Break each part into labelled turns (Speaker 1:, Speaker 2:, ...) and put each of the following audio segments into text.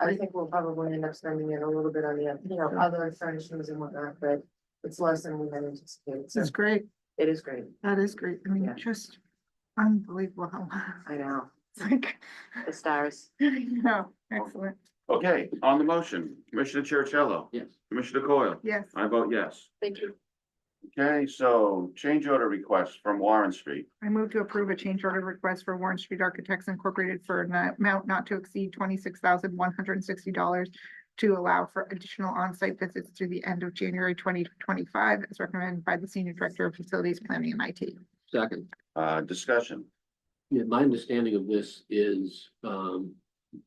Speaker 1: I think we'll probably end up spending it a little bit on the, you know, other furnishings and whatnot, but it's less than we had anticipated, so
Speaker 2: That's great.
Speaker 1: it is great,
Speaker 2: That is great. I mean,
Speaker 1: Yeah.
Speaker 2: just unbelievable.
Speaker 1: I know,
Speaker 2: It's like,
Speaker 1: the stars.
Speaker 2: you know, excellent.
Speaker 3: Okay, on the motion, Commissioner Chercello,
Speaker 4: Yes.
Speaker 3: Commissioner Coyle,
Speaker 2: Yes.
Speaker 3: I vote yes.
Speaker 1: Thank you.
Speaker 3: Okay, so change order request from Warren Street.
Speaker 2: I move to approve a change order request for Warren Street Architects Incorporated for an amount not to exceed twenty-six thousand one hundred and sixty dollars to allow for additional on-site visits through the end of January twenty twenty-five, as recommended by the Senior Director of Facilities Planning and IT.
Speaker 4: Second,
Speaker 3: Uh, discussion.
Speaker 4: yeah, my understanding of this is, um,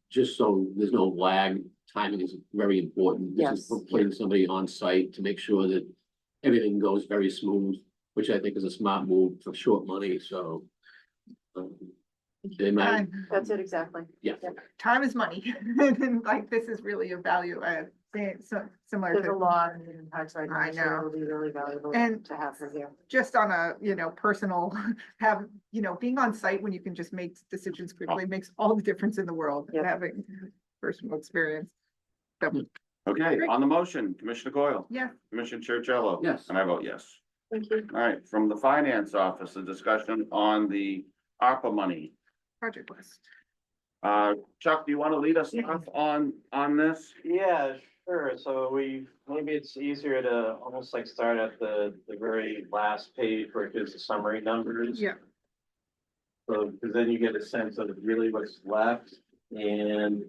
Speaker 4: just so there's no lag, timing is very important. This is
Speaker 1: Yes.
Speaker 4: for Putting somebody on site to make sure that everything goes very smooth, which I think is a smart move for short money, so. um, They might,
Speaker 2: Time-
Speaker 1: That's it, exactly.
Speaker 4: yeah,
Speaker 2: Time is money. And like, this is really a value add, thing, so similar
Speaker 1: There's a
Speaker 2: to,
Speaker 1: lot of moving parts right now,
Speaker 2: I
Speaker 1: so
Speaker 2: know.
Speaker 1: it'll be really valuable
Speaker 2: And-
Speaker 1: to have her here.
Speaker 2: just on a, you know, personal, have, you know, being on site when you can just make
Speaker 5: Oh.
Speaker 2: decisions quickly makes all the difference in the world,
Speaker 1: Yep.
Speaker 2: having personal experience.
Speaker 3: Okay, on the motion, Commissioner Coyle,
Speaker 2: Yeah,
Speaker 3: Commissioner Chercello.
Speaker 4: Yes.
Speaker 3: And I vote yes.
Speaker 1: Thank you.
Speaker 3: All right, from the finance office, a discussion on the ARPA money.
Speaker 2: project list.
Speaker 3: Uh, Chuck, do you want to lead us off on, on this?
Speaker 5: Yeah, sure. So we, maybe it's easier to almost like start at the, the very last page where it gives the summary numbers.
Speaker 2: Yeah,
Speaker 5: So, because then you get a sense of really what's left and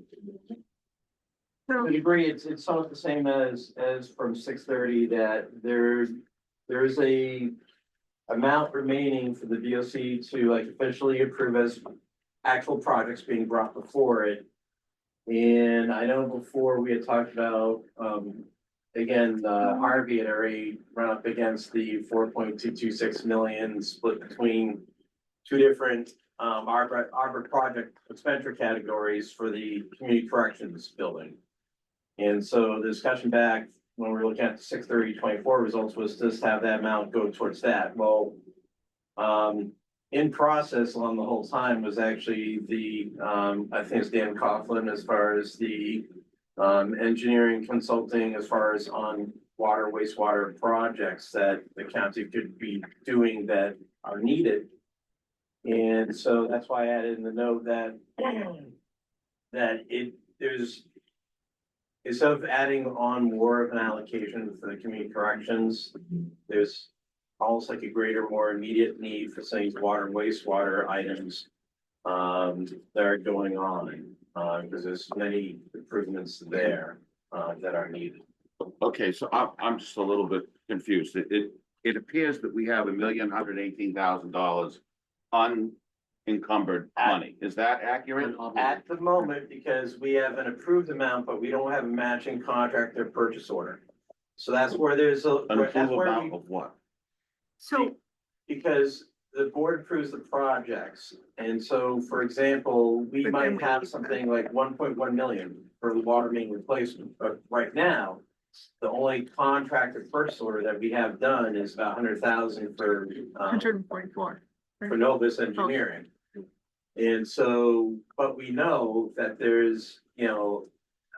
Speaker 2: so,
Speaker 5: to a degree, it's, it's somewhat the same as, as from six thirty that there, there is a amount remaining for the DOC to like officially approve as actual projects being brought before it. And I know before we had talked about, um, again, uh, Harvey had already run up against the four point two two six million split between two different, um, Arbor, Arbor project expenditure categories for the community corrections building. And so the discussion back when we were looking at the six thirty twenty-four results was just have that amount go towards that. Well, um, in process along the whole time was actually the, um, I think it's Dan Coughlin as far as the um, engineering consulting as far as on water wastewater projects that the county could be doing that are needed. And so that's why I added in the note that that it, there's instead of adding on more of an allocation for the community corrections, there's almost like a greater, more immediate need for some of these water and wastewater items um, that are going on, uh, because there's many improvements there, uh, that are needed.
Speaker 3: Okay, so I'm, I'm just a little bit confused. It, it, it appears that we have a million hundred eighteen thousand dollars unencumbered money. Is that accurate?
Speaker 5: At the moment, because we have an approved amount, but we don't have a matching contract or purchase order. So that's where there's a,
Speaker 3: An
Speaker 5: that's
Speaker 3: approval
Speaker 5: where we
Speaker 3: amount of what?
Speaker 2: so,
Speaker 5: Because the board approves the projects, and so, for example, we
Speaker 2: But then
Speaker 5: might
Speaker 2: we
Speaker 5: have
Speaker 2: keep
Speaker 5: something like one point one million for the water main replacement, but right now. The only contracted purchase order that we have done is about hundred thousand for, um,
Speaker 2: hundred and forty-four.
Speaker 5: for Novus Engineering. And so, but we know that there's, you know,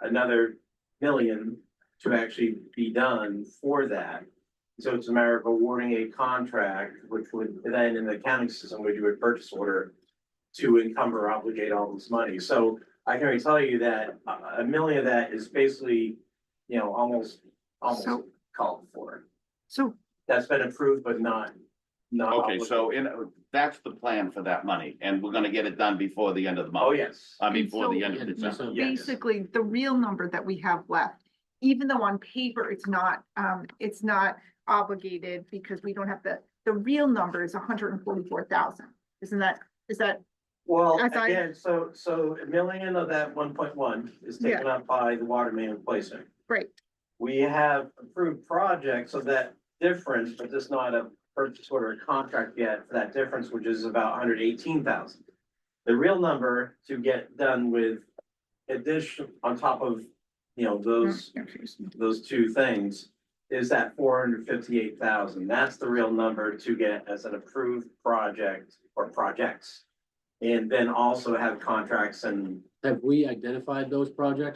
Speaker 5: another million to actually be done for that. So it's a matter of awarding a contract, which would then in the accounting system, we do a purchase order to encumber, obligate all this money. So I can already tell you that a- a million of that is basically, you know, almost, almost
Speaker 2: So-
Speaker 5: called for.
Speaker 2: So,
Speaker 5: That's been approved, but not, not.
Speaker 3: Okay, so
Speaker 5: obligated.
Speaker 3: in, that's the plan for that money and we're gonna get it done before the end of the month.
Speaker 5: Oh, yes.
Speaker 3: I mean, before the
Speaker 2: And
Speaker 3: end of December.
Speaker 4: so-
Speaker 5: Yeah. Yes.
Speaker 2: basically, the real number that we have left, even though on paper it's not, um, it's not obligated because we don't have the, the real number is hundred and forty-four thousand. Isn't that, is that,
Speaker 5: Well,
Speaker 2: As I-
Speaker 5: again, so, so a million of that one point one is taken up by the water main replacement.
Speaker 2: right,
Speaker 5: We have approved projects of that difference, but there's not a purchase order or contract yet for that difference, which is about hundred eighteen thousand. The real number to get done with addition on top of, you know, those those two things is that four hundred fifty-eight thousand. That's the real number to get as an approved project or projects. And then also have contracts and
Speaker 4: have we identified those projects?